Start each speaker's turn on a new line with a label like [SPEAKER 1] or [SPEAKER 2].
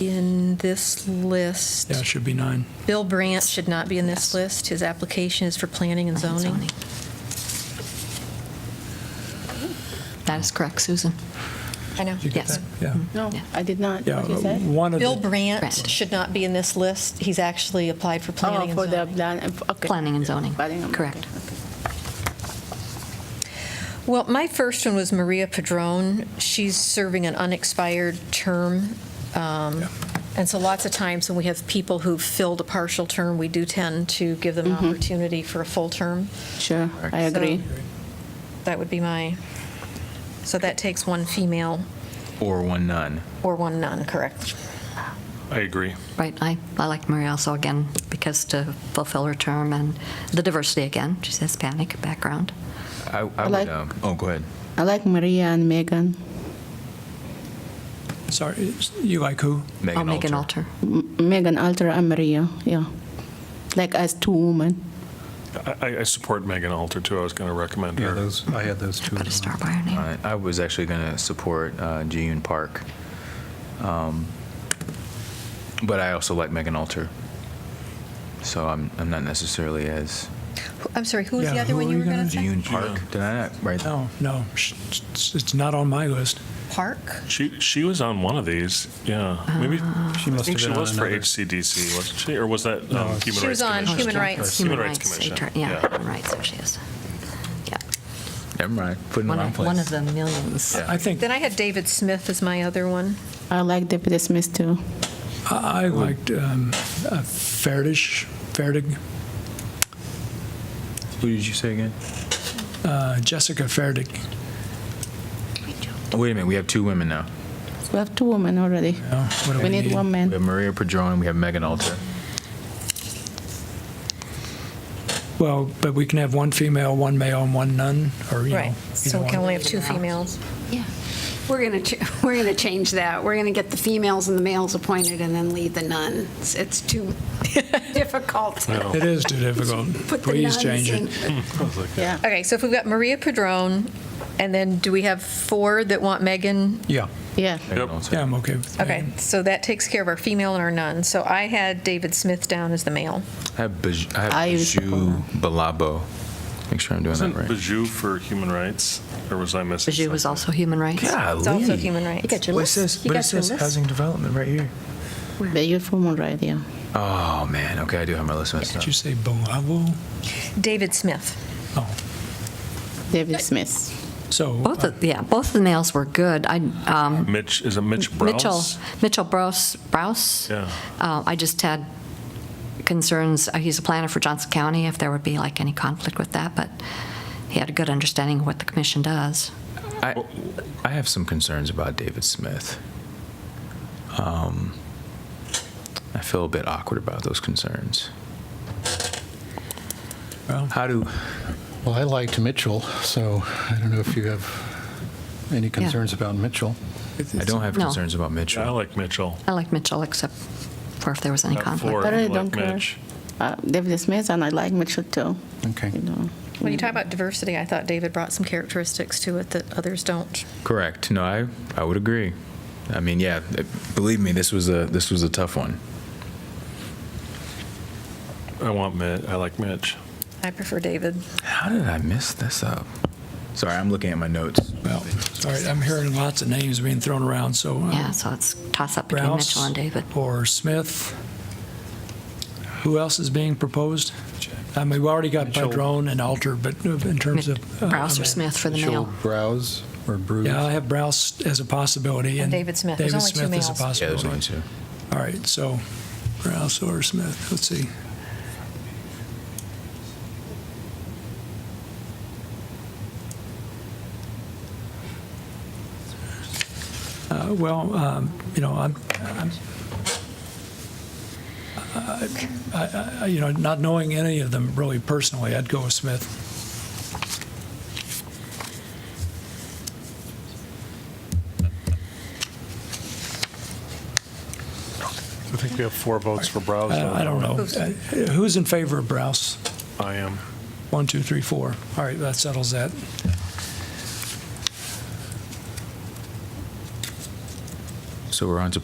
[SPEAKER 1] in this list.
[SPEAKER 2] Yeah, it should be nine.
[SPEAKER 1] Bill Brandt should not be in this list. His application is for planning and zoning.
[SPEAKER 3] That is correct, Susan.
[SPEAKER 4] I know.
[SPEAKER 2] Did you get
[SPEAKER 3] Yes.
[SPEAKER 2] that? Yeah.
[SPEAKER 4] No,
[SPEAKER 3] Yeah.
[SPEAKER 4] I did not.
[SPEAKER 2] Yeah, uh,
[SPEAKER 4] What'd you say?
[SPEAKER 2] one of
[SPEAKER 1] Bill
[SPEAKER 2] the,
[SPEAKER 1] Brandt
[SPEAKER 3] Brandt.
[SPEAKER 1] should not be in this list. He's actually applied for
[SPEAKER 4] Oh,
[SPEAKER 1] planning
[SPEAKER 4] for
[SPEAKER 1] and
[SPEAKER 4] the,
[SPEAKER 1] zoning.
[SPEAKER 4] plan- uh, okay.
[SPEAKER 3] Planning and zoning.
[SPEAKER 4] Planning and-
[SPEAKER 3] Correct.
[SPEAKER 4] okay,
[SPEAKER 1] Well, my first one was Maria Padron. She's serving an unexpired term. Um,
[SPEAKER 2] Yeah.
[SPEAKER 1] And so lots of times when we have people who've filled a partial term, we do tend to give them an opportunity for a full term.
[SPEAKER 4] okay. Sure, I
[SPEAKER 1] So-
[SPEAKER 4] agree.
[SPEAKER 1] That would be my, so that takes one female
[SPEAKER 5] Or one none.
[SPEAKER 1] or one non, correct?
[SPEAKER 6] I agree.
[SPEAKER 3] Right, I, I like Maria also again, because to fulfill her term and the diversity again, she says panic background.
[SPEAKER 5] I, I
[SPEAKER 4] like-
[SPEAKER 5] would, um, oh, go ahead.
[SPEAKER 4] I like Maria and Megan,
[SPEAKER 2] sorry, it's- you like who?
[SPEAKER 5] Megan
[SPEAKER 3] I'll make an
[SPEAKER 5] Alter.
[SPEAKER 3] alter.
[SPEAKER 4] Megan Alter and Maria, yeah. Like as two women.
[SPEAKER 6] I- I, I support Megan Alter, too. I was going to recommend
[SPEAKER 7] Yeah,
[SPEAKER 6] her.
[SPEAKER 7] those, I had those two.
[SPEAKER 3] Put a
[SPEAKER 7] as
[SPEAKER 3] star
[SPEAKER 7] well.
[SPEAKER 3] by her name.
[SPEAKER 5] Uh, I was actually going to support uh, Jiyun Park. Um, But I also like Megan Alter. So I'm, I'm not necessarily as
[SPEAKER 1] I'm sorry, who was the
[SPEAKER 2] Yeah,
[SPEAKER 1] other
[SPEAKER 2] who
[SPEAKER 1] one
[SPEAKER 2] are
[SPEAKER 1] you
[SPEAKER 2] we
[SPEAKER 1] were going
[SPEAKER 2] gonna
[SPEAKER 1] to say?
[SPEAKER 5] Jiyun Park. Did I not write?
[SPEAKER 2] No, no, sh- it's it's not on my list.
[SPEAKER 1] Park?
[SPEAKER 6] She, she was on one of these, yeah. Maybe,
[SPEAKER 7] She
[SPEAKER 6] I
[SPEAKER 7] Ah. must have
[SPEAKER 6] think she
[SPEAKER 7] been on
[SPEAKER 6] was for
[SPEAKER 7] another.
[SPEAKER 6] HCDC, wasn't she? Or was that um, Human
[SPEAKER 7] No,
[SPEAKER 6] Rights
[SPEAKER 7] it's-
[SPEAKER 1] She was on
[SPEAKER 3] Oh,
[SPEAKER 6] Commission?
[SPEAKER 1] Human Rights.
[SPEAKER 6] Human Rights Commission.
[SPEAKER 3] ator- Yeah, human rights, there she is. Yeah,
[SPEAKER 5] Never mind. Put in the
[SPEAKER 3] one
[SPEAKER 5] wrong
[SPEAKER 3] of,
[SPEAKER 5] place.
[SPEAKER 3] one of the millions.
[SPEAKER 5] Yeah.
[SPEAKER 2] I think,
[SPEAKER 1] Then I had David Smith as my other one.
[SPEAKER 4] I like Deputy Smith too.
[SPEAKER 2] I I liked um, uh, Ferdish, Ferdig,
[SPEAKER 5] Who did you say again?
[SPEAKER 2] uh, Jessica Ferdig.
[SPEAKER 5] Oh, wait a minute. We have two women now.
[SPEAKER 4] We have two women already.
[SPEAKER 2] No, what do
[SPEAKER 4] We need one
[SPEAKER 5] We have
[SPEAKER 4] man.
[SPEAKER 5] Maria Padron. We have Megan Alter.
[SPEAKER 2] Well, but we can have one female, one male, and one nun, or, you know.
[SPEAKER 1] So
[SPEAKER 2] either
[SPEAKER 1] we can
[SPEAKER 2] one.
[SPEAKER 1] only have two females.
[SPEAKER 8] Yeah, we're going to, we're going to change that. We're going to get the females and the males appointed and then leave the nuns. It's- It's too difficult. to
[SPEAKER 7] Oh.
[SPEAKER 2] It is too difficult.
[SPEAKER 8] Put the
[SPEAKER 2] Please
[SPEAKER 8] nuns
[SPEAKER 2] change
[SPEAKER 8] in.
[SPEAKER 2] it.
[SPEAKER 4] Yeah.
[SPEAKER 1] Okay, so if we've got Maria Padron, and then do we have four that want Megan?
[SPEAKER 2] Yeah,
[SPEAKER 4] Yeah,
[SPEAKER 5] Megan
[SPEAKER 6] Yep.
[SPEAKER 5] Alter.
[SPEAKER 2] yeah, I'm okay with that.
[SPEAKER 1] Okay, so that takes care of our female and our none. So I had David Smith down as the male.
[SPEAKER 5] I have Baj- I have
[SPEAKER 4] I use-
[SPEAKER 5] Biju Balabo. Make sure I'm doing
[SPEAKER 6] Wasn't
[SPEAKER 5] that right.
[SPEAKER 6] Bajou for Human Rights? Or was I missing?
[SPEAKER 3] Bajou was
[SPEAKER 6] something?
[SPEAKER 3] also human rights.
[SPEAKER 2] Oh,
[SPEAKER 1] It's also human rights.
[SPEAKER 5] What it says, but it says housing development right here.
[SPEAKER 4] but you're from right, yeah.
[SPEAKER 5] Oh man, okay, I do have my list messed
[SPEAKER 2] Did
[SPEAKER 5] up.
[SPEAKER 2] you say Bolavo?
[SPEAKER 1] David Smith.
[SPEAKER 2] Oh,
[SPEAKER 4] David Smith.
[SPEAKER 2] so. uh,
[SPEAKER 3] Both, of- yeah, both of the males were good. I, um,
[SPEAKER 6] Mitch, is it Mitch
[SPEAKER 3] Mitchell,
[SPEAKER 6] Brouse?
[SPEAKER 3] Mitchell Brouse, Brouse.
[SPEAKER 6] Yeah.
[SPEAKER 3] Uh, I just had concerns, uh, he's a planner for Johnson County, if there would be like any conflict with that, but he had a good understanding of what the commission does.
[SPEAKER 5] I, I have some concerns about David Smith. Um, I feel a bit awkward about those concerns.
[SPEAKER 2] Well-
[SPEAKER 5] How do,
[SPEAKER 7] Well, I liked Mitchell, so I don't know if you have any concerns about Mitchell.
[SPEAKER 5] I don't have
[SPEAKER 3] No.
[SPEAKER 5] concerns about
[SPEAKER 6] Yeah, I
[SPEAKER 5] Mitchell.
[SPEAKER 6] like Mitchell.
[SPEAKER 3] I like Mitchell, except for if there was any
[SPEAKER 6] At four,
[SPEAKER 3] conflict.
[SPEAKER 4] I really
[SPEAKER 6] you like
[SPEAKER 4] don't care.
[SPEAKER 6] Mitch.
[SPEAKER 4] Uh, David Smith and I like Mitchell too.
[SPEAKER 7] Okay.
[SPEAKER 4] You know.
[SPEAKER 1] When you talk
[SPEAKER 5] Hmm.
[SPEAKER 1] about diversity, I thought David brought some characteristics to it that others don't.
[SPEAKER 5] Correct, no, I, I would agree. I mean, yeah, it- believe me, this was a, this was a tough one.
[SPEAKER 6] I want Mitch, I like Mitch.
[SPEAKER 1] I prefer David.
[SPEAKER 5] How did I mess this up? Sorry, I'm looking at my notes.
[SPEAKER 2] Well, sorry, I'm hearing lots of names being thrown around, so. uh,
[SPEAKER 3] Yeah, so it's toss-up between
[SPEAKER 2] Rouse
[SPEAKER 3] Mitchell and David.
[SPEAKER 2] Or Smith. Who else is being proposed? I mean, we already got
[SPEAKER 7] Mitchell.
[SPEAKER 2] Padron and Alter, but in terms
[SPEAKER 3] Mit-
[SPEAKER 2] of. uh,
[SPEAKER 3] Brouse or Smith for the
[SPEAKER 7] Mitchell
[SPEAKER 3] male.
[SPEAKER 7] Browse or Bruce?
[SPEAKER 2] Yeah, I have Browse as a possibility.
[SPEAKER 1] And David Smith. There's
[SPEAKER 2] David
[SPEAKER 1] only two
[SPEAKER 2] Smith is a
[SPEAKER 1] males.
[SPEAKER 5] Yeah, there's only
[SPEAKER 2] possibility.
[SPEAKER 5] two.
[SPEAKER 2] All right, so Browse or Smith, let's see. Uh, Well, um, you know, I'm, I'm- I- I- you know, not knowing any of them really personally, I'd go with Smith.
[SPEAKER 6] I think we have four votes for Brouse.
[SPEAKER 2] I I don't know. Uh, Who's in favor of Browse?
[SPEAKER 6] I am.
[SPEAKER 2] One, two, three, four. All right, that settles that.
[SPEAKER 5] So we're on to